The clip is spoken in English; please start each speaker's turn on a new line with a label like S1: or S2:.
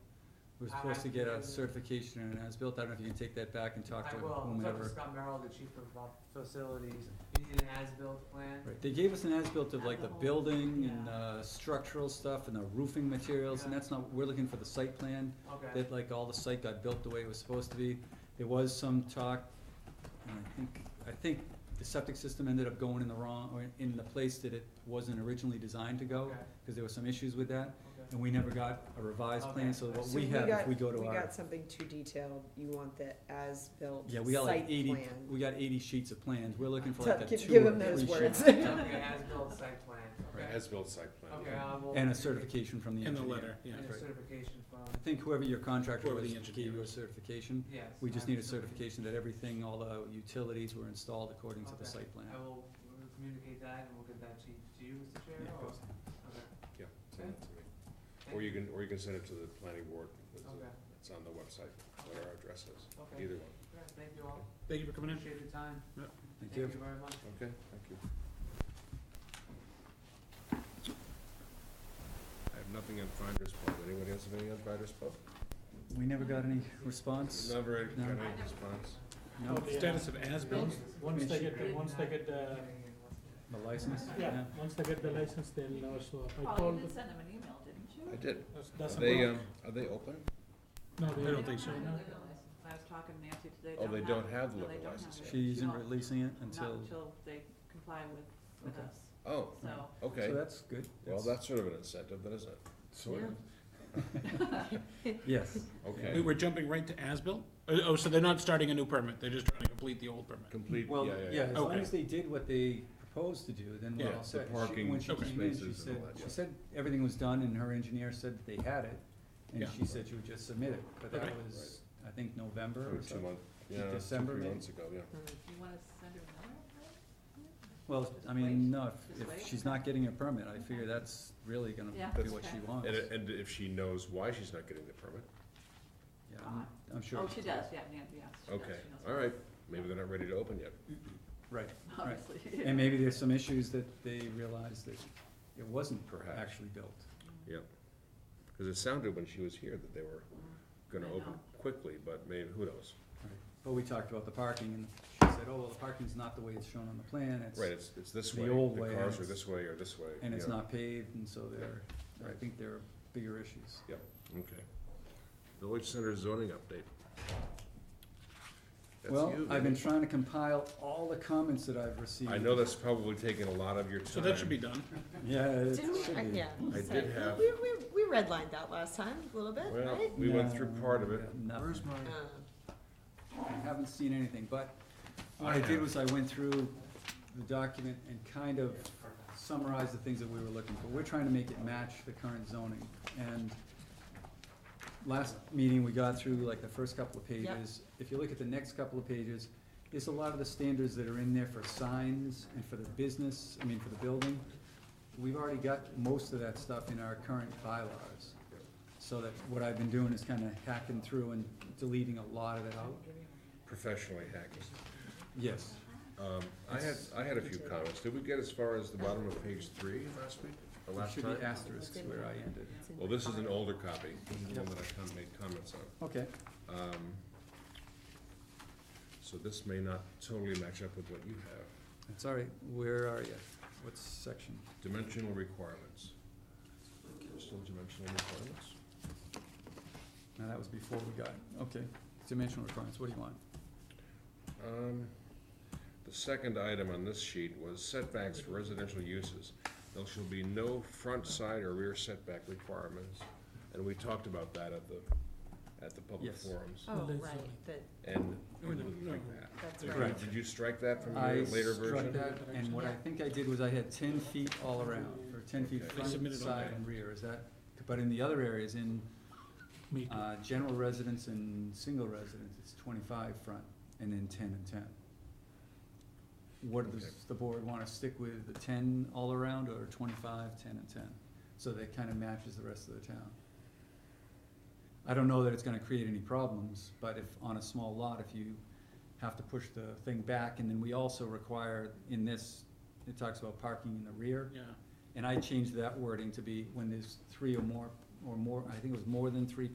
S1: We're
S2: I-
S1: supposed
S2: I
S1: to get a
S2: can-
S1: certification and an as-built, I don't know if you can take that back and talk
S2: I
S1: to
S2: will, I'll talk to
S1: whomever.
S2: Scott Merrill, the chief of uh, facilities, you need an as-built plan?
S1: Right, they gave us an as-built of like the
S3: Alcohol,
S1: building and,
S3: yeah.
S1: uh, structural stuff and the roofing materials, and
S2: Yeah.
S1: that's not, we're looking for the site plan,
S2: Okay,
S1: that like all the site got built the way it was supposed to be. There was some talk, and I think, I think the septic system ended up going in the wrong, or in the place that it wasn't originally designed to go,
S2: Okay.
S1: cause there were some issues with that,
S2: okay,
S1: and we never got a revised plan,
S2: Okay.
S1: so what
S4: So
S1: we have, if
S4: got-
S1: we go to
S4: We
S1: our,
S4: got something too detailed, you want the as-built
S1: yeah, we got
S4: site
S1: like eighty,
S4: plan.
S1: we got eighty sheets of plans, we're looking for
S4: Tell-
S1: like a two or three sheets.
S4: give- give 'em those words.
S1: yeah.
S2: okay, as-built site plan,
S5: Right,
S2: okay,
S5: as-built site plan.
S2: okay, I will.
S1: And a certification from the
S6: And
S1: engineer.
S6: the letter, yeah.
S2: And a certification
S1: I
S2: from,
S1: think whoever your contractor
S6: Whoever
S1: was
S6: the engineer
S1: gave you a
S6: is.
S1: certification.
S2: yes.
S1: We just need a
S2: absolutely.
S1: certification that everything, all the utilities were installed according to the
S2: Okay.
S1: site plan.
S2: I will uh, communicate that and we'll get that to you, to you, Mr. Chair,
S1: Yeah,
S2: or?
S1: goes-
S2: Okay.
S5: Yeah, send it to me. Or you can, or you can send it to the planning board. It's- uh,
S2: Okay,
S5: It's on the website, what our address is,
S2: okay,
S5: either one.
S2: All right, thank you all,
S6: Thank you for coming in.
S2: appreciate your time,
S1: Thank
S2: thank
S1: you.
S2: you very much.
S5: Okay, thank you. I have nothing on Finders Pub. Anyone else have anything on Finders Pub?
S1: We never got any response?
S5: Never got
S1: No.
S5: any response.
S1: No,
S6: Status of as-built,
S7: Once they get, the
S2: Great
S7: once they get the,
S1: the license?
S7: yeah, once they get the license, they'll know, so I
S3: Paul, Oh, you
S7: told,
S3: did send them an email, didn't you?
S5: I did.
S7: that's,
S5: Are
S7: that's a
S5: they,
S7: problem.
S5: um, are they open?
S7: No,
S6: I
S7: they
S6: don't think so.
S3: have liquor license. I was talking to Nancy today.
S5: Oh, they don't have
S3: no,
S5: liquor
S3: they don't have
S5: license
S3: it.
S5: yet.
S1: She isn't
S3: No,
S1: releasing it
S3: Not
S1: until,
S3: until they comply with, with
S4: Uh-huh.
S1: Okay.
S3: us,
S5: Oh,
S3: so.
S1: so
S5: okay.
S1: that's good.
S5: Well, that's sort of an incentive, then, isn't it?
S1: Sort Yes,
S5: Okay.
S6: We were jumping right to as-built? Oh, oh, so they're not starting a new permit, they're just trying to complete the old permit.
S5: Complete, yeah,
S1: well,
S5: yeah,
S1: yeah, as long
S6: Okay.
S1: as they did what they proposed to do, then we're
S6: Yeah,
S1: all
S5: the
S1: set. She-
S5: parking
S1: When she
S6: Okay.
S1: came in, she
S5: spaces
S1: said,
S5: and all that,
S1: she
S5: yeah.
S1: said everything was done and her engineer said that they had it, and
S6: Yeah.
S1: she said she would just submit it, but that
S6: Right.
S1: was, I think, November
S5: For
S1: or
S5: two
S1: something.
S5: months, yeah, two,
S1: December,
S5: three
S1: maybe?
S5: months ago, yeah.
S3: You wanna send her another? letter?
S1: Well,
S3: Just
S1: I mean,
S3: wait.
S1: no, if-
S3: Just
S1: if
S3: wait.
S1: she's not getting a permit, I figure that's really gonna
S3: Yeah.
S1: be what she
S3: That's-
S1: wants.
S5: And, and if she knows why she's not getting the permit,
S1: Yeah, I'm, I'm sure.
S3: Oh, she does, yeah, Nancy, yes, she does,
S5: okay,
S3: she knows.
S5: all right, maybe they're not ready to open yet.
S1: Right,
S3: Obviously.
S1: and maybe there's some issues that they realize that it wasn't
S5: Perhaps.
S1: actually built.
S5: Because it sounded when she was here that they were gonna
S3: I
S5: open
S3: know.
S5: quickly, but maybe, who knows?
S1: Right. But we talked about the parking, and she said, oh, well, the parking's not the way it's shown on the plan, it's,
S5: Right, it's, it's this
S1: The
S5: way,
S1: old
S5: the
S1: way,
S5: cars
S1: and
S5: are
S1: it's-
S5: this way or this way.
S1: and it's
S5: yeah.
S1: not paved, and so there, I
S5: Right.
S1: think there are bigger issues.
S5: Okay. Village Center zoning update. That's
S1: Well,
S5: you,
S1: I've been
S5: baby.
S1: trying to compile all the comments that I've received.
S5: I know that's probably taken a lot of your time.
S6: So that should be done.
S1: Yeah, it
S4: Didn't we, I-
S1: should be.
S4: yeah.
S5: I
S4: so
S5: did have-
S4: We, we, we redlined that last time, a little bit,
S5: Well,
S4: right?
S5: we went through part of
S1: No,
S5: it.
S1: no.
S5: my?
S4: Uh,
S1: I haven't seen anything, but what
S5: I
S1: I did
S5: have.
S1: was I went through the document and kind of summarized the things that we were looking for. We're trying to make it match the current zoning, and last meeting, we got through like the first couple of
S4: Yep.
S1: pages. If you look at the next couple of pages, there's a lot of the standards that are in there for signs and for the business, I mean, for the building. We've already got most of that stuff in our current bylaws. So that what I've been doing is kinda hacking through and deleting a lot of it out.
S5: Professionally hacking.
S1: Yes.
S5: Um, I had, I had a few comments. Did we get as far as the bottom of page three last week, or
S1: It
S5: last
S1: should be
S5: time?
S1: asterisks where I ended.
S4: it's in
S5: Well,
S4: the
S5: this is an
S4: file.
S5: older copy. This is the one that I kind of made comments on.
S1: Okay,
S5: Um, So this may not totally match up with what you have.
S1: that's all right. Where are you? What section?
S5: Dimensional requirements. There's Still dimensional requirements?
S1: No, that was before we got, okay. Dimensional requirements, what do you want?
S5: Um, The second item on this sheet was setbacks for residential uses. There shall be no front, side, or rear setback requirements. And we talked about that at the, at the public
S1: Yes.
S5: forums.
S4: Oh, right, that,
S5: And
S6: No,
S5: we
S6: no,
S5: didn't like that.
S4: that's
S6: Right.
S4: right.
S5: Did you strike that from
S1: I
S5: your later
S1: struck
S5: version?
S1: that, and what I think I did was I had ten feet all around, or ten feet
S5: Okay.
S1: front,
S6: Submitted on
S1: side,
S6: that.
S1: and rear, is that? But in the other areas, in,
S6: Me too.
S1: uh, general residence and single residence, it's twenty-five front, and then ten and ten. What does
S5: Okay.
S1: the board wanna stick with, the ten all around, or 25, 10, and ten? So that kinda matches the rest of the town. I don't know that it's gonna create any problems, but if, on a small lot, if you have to push the thing back, and then we also require in this, it talks about parking in the rear.
S6: Yeah,
S1: And I changed that wording to be when there's three or more, or more, I think it was more than three